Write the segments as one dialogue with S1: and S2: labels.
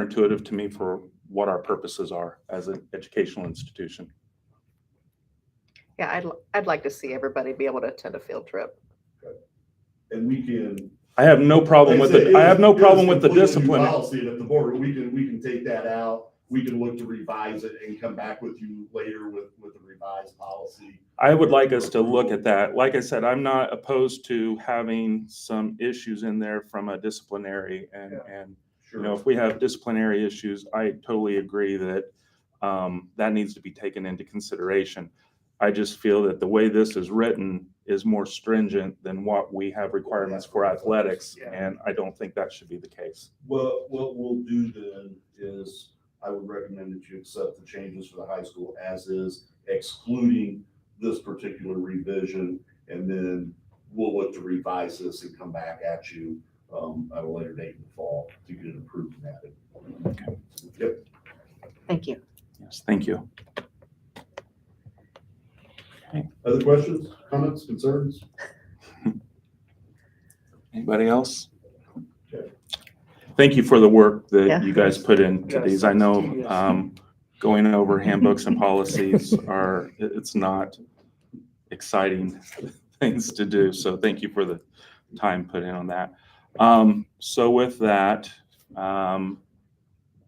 S1: counterintuitive to me for what our purposes are as an educational institution.
S2: Yeah, I'd, l- I'd like to see everybody be able to attend a field trip.
S3: And we can.
S1: I have no problem with
S3: Like I
S1: it.
S3: said,
S1: I have no
S3: was- it
S1: problem
S3: was
S1: with the
S3: completely new
S1: discipline.
S3: Policy and at the board, we can, we can take that out. We can look to revise it and come back with you later with, with a revised policy.
S1: I would like us to look at that. Like I said, I'm not opposed to having some issues in there from a disciplinary and, and You know,
S3: Sure.
S1: if we have disciplinary issues, I totally agree that um, that needs to be taken into consideration. I just feel that the way this is written is more stringent than what we have requirements for athletics,
S3: Yeah.
S1: and I don't think that should be the case.
S3: Well, what we'll do then is I would recommend that you accept the changes for the high school as is, excluding this particular revision. And then we'll look to revise this and come back at you, um, at a later date in the fall to get it approved and added. Yep.
S2: Thank you.
S1: Yes, thank you.
S3: Other questions, comments, concerns?
S1: Anybody else?
S3: Okay.
S1: Thank you for the work
S2: Yeah.
S1: that you guys put into
S3: Yes,
S1: these. I know
S3: yes.
S1: um, going over handbooks and policies are, it- it's not exciting things to do. So thank you for the time put in on that. Um, So with that, um,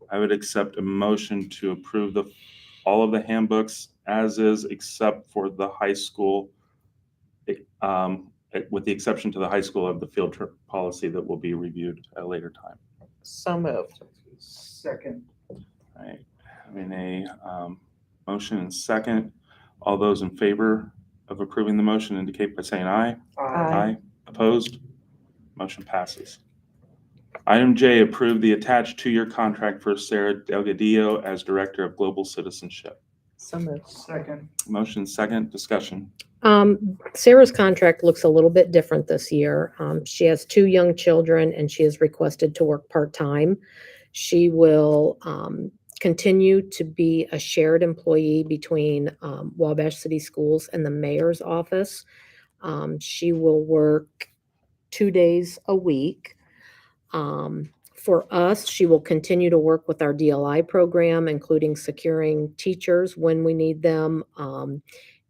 S1: I would accept a motion to approve the, all of the handbooks as is, except for the high school, um, with the exception to the high school of the field trip policy that will be reviewed at a later time.
S2: So moved.
S4: Second.
S1: All right, having a um, motion and second. All those in favor of approving the motion indicate by saying aye.
S2: Aye.
S1: Opposed? Motion passes. Item J, approve the attached two-year contract for Sarah Delgadillo as Director of Global Citizenship.
S2: So moved.
S4: Second.
S1: Motion second, discussion.
S5: Um, Sarah's contract looks a little bit different this year. Um, she has two young children and she is requested to work part-time. She will, um, continue to be a shared employee between, um, Wabash City Schools and the mayor's office. Um, she will work two days a week. Um, for us, she will continue to work with our DLI program, including securing teachers when we need them. Um,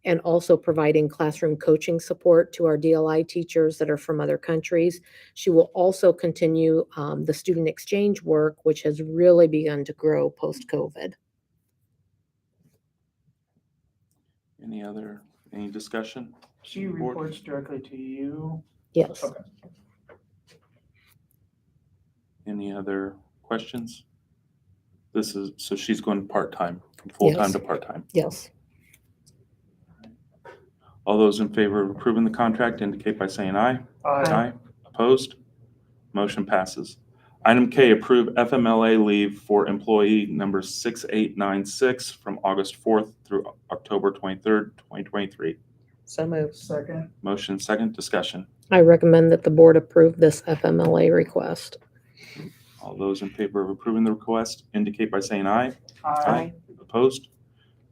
S5: and also providing classroom coaching support to our DLI teachers that are from other countries. She will also continue um, the student exchange work, which has really begun to grow post-COVID.
S1: Any other, any discussion?
S4: She reports directly to you.
S5: Yes.
S1: Any other questions? This is, so she's going part-time, from full-time
S5: Yes.
S1: to part-time.
S5: Yes.
S1: All those in favor of approving the contract indicate by saying aye.
S4: Aye.
S1: Opposed? Motion passes. Item K, approve FMLA leave for employee number 6896 from August 4th through October 23rd, 2023.
S2: So moved.
S4: Second.
S1: Motion second, discussion.
S5: I recommend that the board approve this FMLA request.
S1: All those in favor of approving the request indicate by saying aye. Opposed?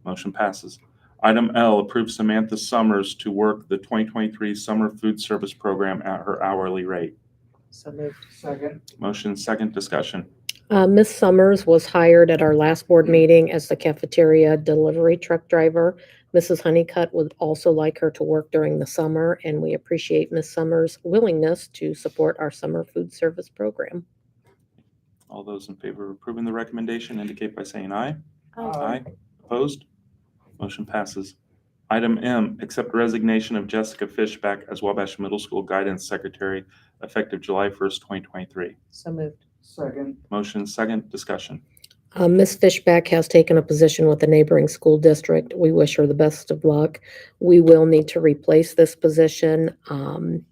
S1: Motion passes. Item L, approve Samantha Summers to work the 2023 Summer Food Service Program at her hourly rate.
S2: So moved.
S4: Second.
S1: Motion second, discussion.
S5: Uh, Ms. Summers was hired at our last board meeting as the cafeteria delivery truck driver. Mrs. Honeycutt would also like her to work during the summer, and we appreciate Ms. Summers' willingness to support our summer food service program.
S1: All those in favor of approving the recommendation indicate by saying aye. Aye. Opposed? Motion passes. Item M, accept resignation of Jessica Fishback as Wabash Middle School Guidance Secretary effective July 1st, 2023.
S2: So moved.
S4: Second.
S1: Motion second, discussion.
S5: Uh, Ms. Fishback has taken a position with the neighboring school district. We wish her the best of luck. We will need to replace this position um,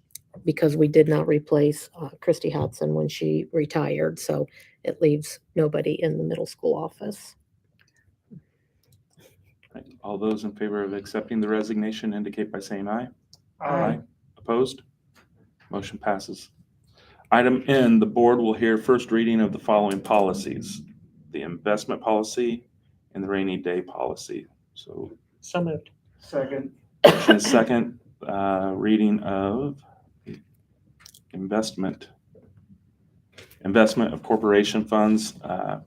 S5: because we did not replace uh, Christy Hudson when she retired. So it leaves nobody in the middle school office.
S1: All those in favor of accepting the resignation indicate by saying aye. Opposed? Motion passes. Item N, the board will hear first reading of the following policies. The investment policy and the rainy day policy. So
S2: So moved.
S4: Second.
S1: motion is second uh, reading of investment investment of corporation funds, uh,